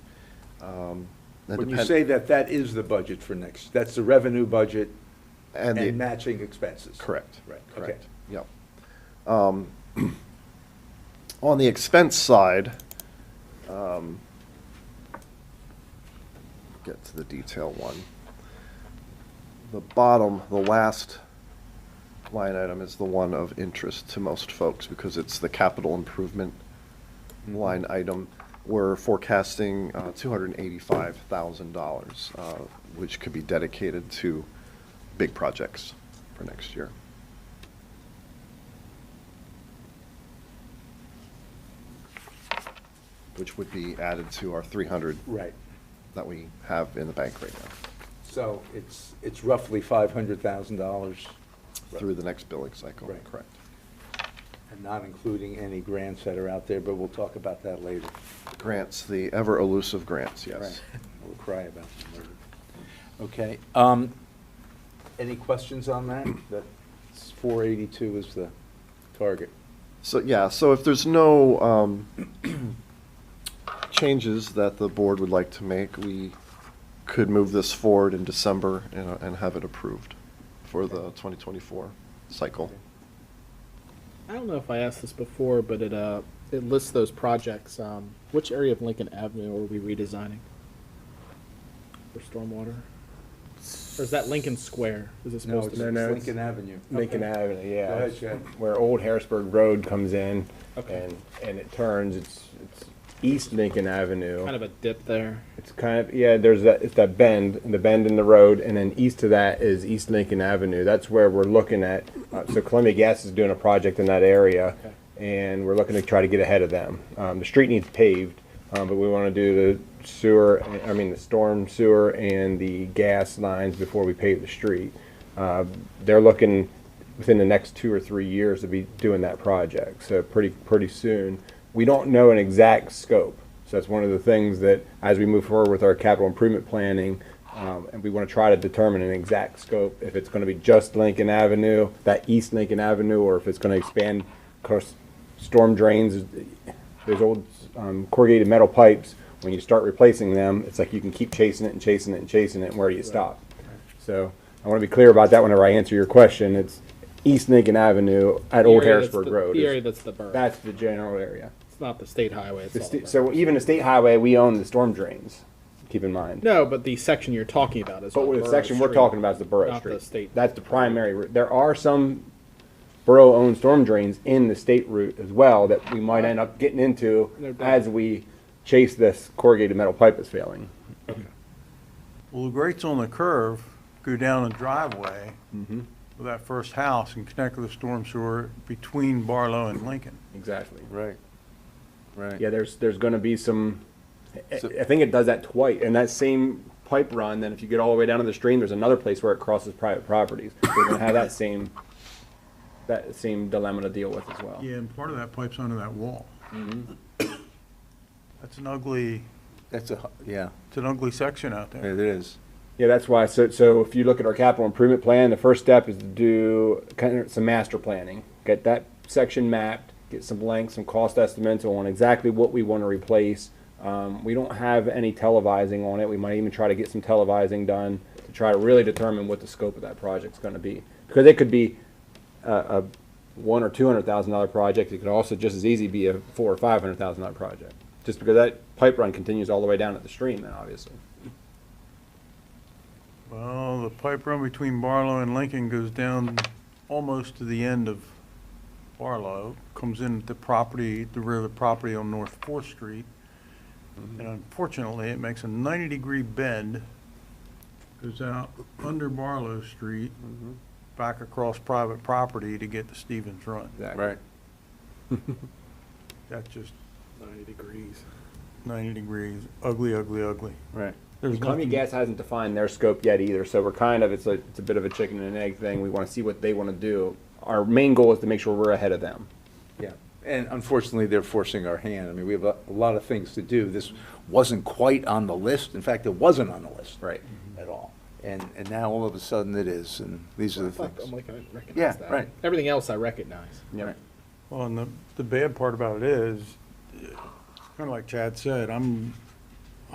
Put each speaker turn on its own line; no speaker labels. Um, that
When you
depend-
say that, that is the budget for next, that's the revenue budget
And
and
the,
matching expenses.
correct.
Right, okay.
Correct, yep. Um, On the expense side, um, get to the detail one. The bottom, the last line item is the one of interest to most folks because it's the capital improvement
Mm-hmm.
line item. We're forecasting uh, $285,000, uh, which could be dedicated to big projects for next year. Which would be added to our 300
Right,
that we have in the bank right now,
so it's, it's roughly five hundred thousand dollars,
through the next billing cycle.
Right.
Correct.
and not including any grants that are out there, but we'll talk about that later.
Grants, the ever elusive grants, yes.
Right. We'll cry about them later. Okay, um, any questions on that? That four eighty-two is the target.
So, yeah, so if there's no um, changes that the board would like to make, we could move this forward in December and and have it approved for the 2024 cycle.
I don't know if I asked this before, but it uh it lists those projects. Um, which area of Lincoln Avenue are we redesigning for stormwater? Or is that Lincoln Square? Is it
No,
supposed
it's
to?
No,
it's
no, it's-
Lincoln Avenue.
Lincoln
Okay.
Avenue, yeah.
Go ahead,
it's
Chad.
Where Old Harrisburg Road comes in
Okay.
and, and it turns, it's, it's East Lincoln
be kind
Avenue.
of a dip there.
It's kind of, yeah, there's that, it's that bend, the bend in the road, and then east of that is East Lincoln Avenue. That's where we're looking at, uh, so Columbia Gas is doing a project in that area,
Okay.
and we're looking to try to get ahead of them. Um, the street needs paved, um, but we want to do the sewer, I mean, the storm sewer and the gas lines before we pave the street. Uh, they're looking within the next two or three years to be doing that project, so pretty, pretty soon. We don't know an exact scope, so that's one of the things that, as we move forward with our capital improvement planning, um, and we want to try to determine an exact scope, if it's going to be just Lincoln Avenue, that East Lincoln Avenue, or if it's going to expand, of course, storm drains, there's old um, corrugated metal pipes, when you start replacing them, it's like you can keep chasing it and chasing it and chasing it, and where do you stop? So I want to be clear about that whenever I answer your question. It's East Lincoln Avenue at
The
Old
area that's
Harrisburg
the-
Road.
The
is-
area that's the burn.
That's the general area.
it's not the state highway. It's
The
all
sta-
the berm.
so even the state highway, we own the storm drains, keep in mind.
no, but the section you're talking about is.
But
on
with the
Borough
section we're
Street.
talking about is the borough
Not the
street.
state.
That's the primary route. There are some borough-owned storm drains in the state route as well that we might end up getting into
No doubt.
as we chase this corrugated metal pipe that's failing.
Well, the grates on the curve go down the driveway of that first house and connect with the storm sewer between Barlow and Lincoln.
Exactly.
Right, right.
Yeah, there's, there's gonna be some, I, I think it does that twice, and that same pipe run, then if you get all the way down to the stream, there's another place where it crosses private properties. We're gonna have that same, that same dilemma to deal with as well.
Yeah, and part of that pipe's under that wall. That's an ugly,
That's a, hu- yeah,
it's an ugly section out there.
it is.
Yeah, that's why, so, so if you look at our capital improvement plan, the first step is to do kind of some master planning. Get that section mapped, get some blanks, some cost estimates on exactly what we wanna replace. Um, we don't have any televising on it, we might even try to get some televising done to try to really determine what the scope of that project's gonna be. Because it could be a, a one or two hundred thousand dollar project, it could also just as easy be a four or five hundred thousand dollar project. Just because that pipe run continues all the way down at the stream then, obviously.
Well, the pipe run between Barlow and Lincoln goes down almost to the end of Barlow, comes in at the property, the rear of the property on North Fourth Street. And unfortunately, it makes a ninety-degree bend, goes out under Barlow Street, back across private property to get to Stevens Run.
Exactly.
Right.
That's just
90 degrees.
ninety degrees, ugly, ugly, ugly.
Right.
There's
Columbia
nothing,
Gas hasn't defined their scope yet either, so we're kind of, it's a, it's a bit of a chicken and egg thing. We want to see what they want to do. Our main goal is to make sure we're ahead of them.
Yeah, and unfortunately, they're forcing our hand. I mean, we have a a lot of things to do. This wasn't quite on the list. In fact, it wasn't on the list.
Right.
At all. And, and now all of a sudden it is, and these are the
Fuck, I'm
things.
like I didn't recognize
Yeah,
that.
right.
Everything else I recognize.
Yep.
well, and the, the bad part about it is, kind of like Chad said, I'm